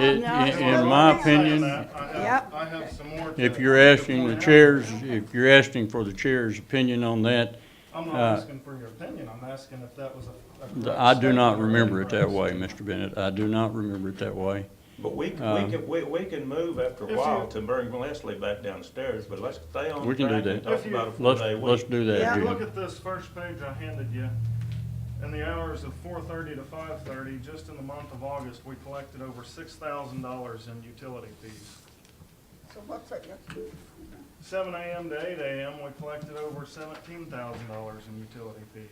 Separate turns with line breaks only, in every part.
In, in my opinion,
Yep.
I have some more. to-
if you're asking the chairs, if you're asking for the chair's opinion on that,
I'm not
uh,
asking for your opinion, I'm asking if that was a- a. correct
I do not
statement or
remember it that
incorrect
way, Mr. Bennett. I do not remember it that way.
But we, c-
Um,
we can, we, we can move after
If
a
you-
while to bring Leslie back downstairs, but let's stay on
We can do
track and
that.
talk
If you-
about a
Let's,
four-day
let's
week.
do
Yeah.
that,
statement. Look
Jim.
at this first page I handed you. In the hours of four thirty to five thirty, just in the month of August, we collected over six thousand dollars in utility fees.
So what's it,
Seven AM to eight AM, we collected over seventeen thousand dollars in utility fees.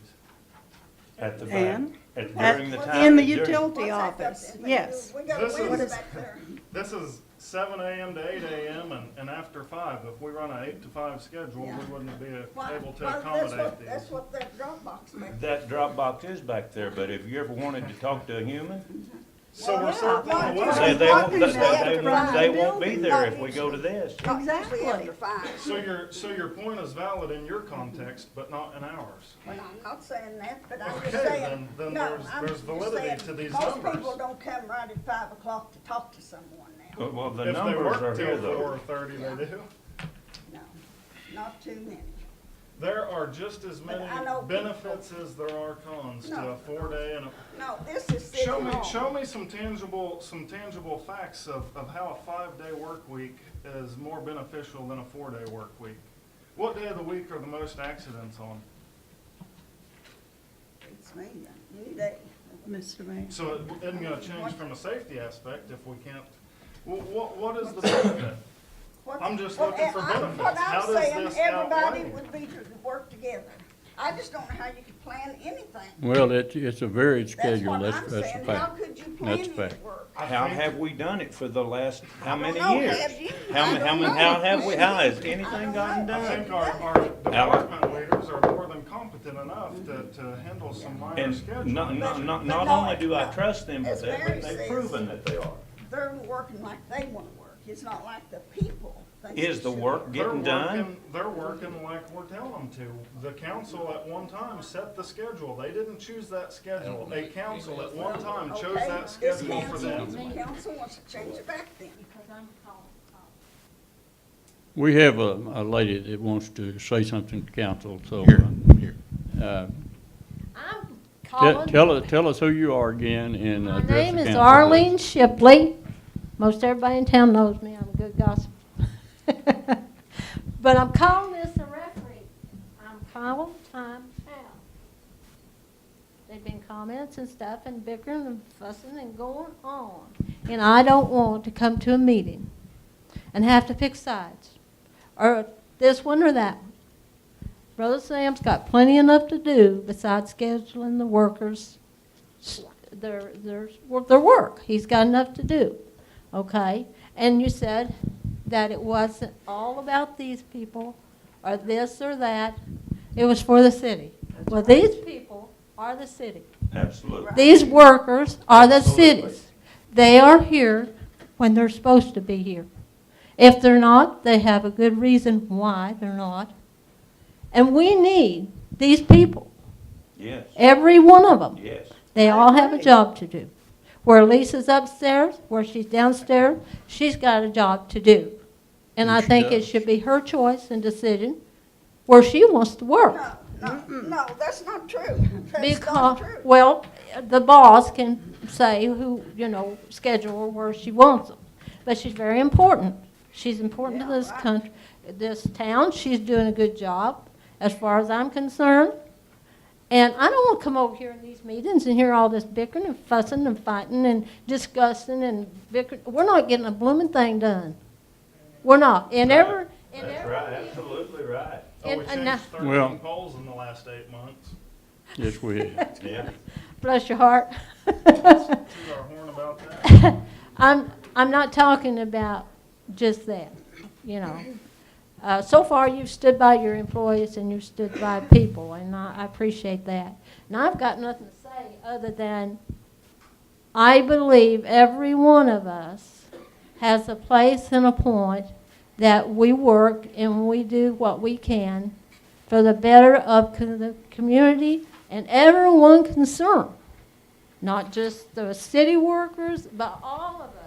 At the back,
And?
at,
At-
during the
in
time.
the
during-
utility office, yes.
We got
This
winds
is-
back there.
This is seven AM to eight AM and, and after five. If we run an eight to five schedule, we
Yeah.
wouldn't be
Why-
able to
why, that's
accommodate
what,
these.
that's what that Dropbox meant.
That drop box is back there, but have you ever wanted to talk to a human?
So
Well,
we're
yeah,
certainly
why-
aware.
They, they won't, they,
Walkers have
they
to
won't, they
run
won't be there if we
buildings.
go to this.
Not usually
Exactly.
after five.
So your, so your point is valid in your context, but not in ours.
Well, I'm not saying that, but I'm just
Okay, then-
saying,
then
no,
there's-
I'm
there's
just
validity
saying,
to these
most
numbers.
people don't come right at five o'clock to talk to someone now.
But, Well, the
If they
numbers are
work
here
till
though.
four thirty, they do.
No, not too many.
There are just as
But
many
I know people-
benefits as there are cons to
No.
a four-day and a
No, this is city
Show me,
hall.
show me some tangible, some tangible facts of, of how a five-day work week is more beneficial than a four-day work week. What day of the week are the most accidents on?
It's me, then. any day.
Mr. Mayor.
So it isn't gonna change from a safety aspect if we can't, wha- what, what is the benefit?
What-
I'm just
well,
looking for
I'm-
benefits. How does
What I'm
this
saying, everybody
outweigh?
would be to work together. I just don't know how you could plan anything.
Well, it, it's a varied
That's
schedule,
what
that's,
I'm
that's a
saying. How
fact.
could you plan
That's a
any
fact.
work?
I
How
think-
have we done it for the last, how many
know.
years?
Have you?
How,
I
ma- how,
don't
ma-
know.
how have we, how has
I
anything
don't
gotten
know.
I
done?
think our, our department leaders are more than competent enough to, to handle some minor
And not,
scheduling.
not, not,
But
not
no,
only do I
no.
trust them for
As
that,
Mary
but they've
says-
proven that they are.
They're working like they wanna work. It's not like the people think.
Is
they
the
should
work
They're
getting done?
working- They're working like we're telling them to. The council at one time set the schedule. They didn't choose that schedule. A council at one time
Okay,
chose that
this
schedule for
council-
them.
Council wants to change it back then.
because I'm called up.
We have a, a lady that wants to say something to council, so. uh,
I'm
Tell,
calling.
tell us, tell us who you are again and
My
address the
name is
council, please.
Arlene Shipley. Most everybody in town knows me. I'm a good gossip. But I'm calling this a referee. I'm calling time out. They've been comments and stuff and bickering and fussing and going on. And I don't want to come to a meeting and have to pick sides, or this one or that one. Brother Sam's got plenty enough to do besides scheduling the workers, s- their, their, their work. He's got enough to do, okay? And you said that it wasn't all about these people, or this or that. It was for the city. Well, these people are the city.
Absolutely.
These workers are the
Absolutely.
cities. They are here when they're supposed to be here. If they're not, they have a good reason why they're not. And we need these people,
Yes,
every one of them.
yes.
They all have a job to do. Where Lisa's upstairs, where she's downstairs, she's got a job to do. And I
She
think it
does.
should be her choice and decision where she wants to work.
No, no, no, that's not true. That's not
Because,
true.
well, the boss can say who, you know, schedule her where she wants them. But she's very important. She's important to
Yeah,
this
right.
country, this town. She's doing a good job, as far as I'm concerned. And I don't want to come over here in these meetings and hear all this bickering and fussing and fighting and discussing and bickering. We're not getting a blooming thing done. We're not. And
Right.
ever, and
That's
ever.
right, absolutely right.
Oh, we
And- and I-
changed
Well-
thirteen polls in the last eight months.
Yes, we have.
Yeah.
Bless your heart.
Toot our horn about that.
I'm, I'm not talking about just that, you know. Uh, so far, you've stood by your employees and you've stood by people, and I, I appreciate that. And I've got nothing to say other than I believe every one of us has a place and a point that we work and we do what we can for the better of co- the community and everyone concerned not just the city workers, but all of us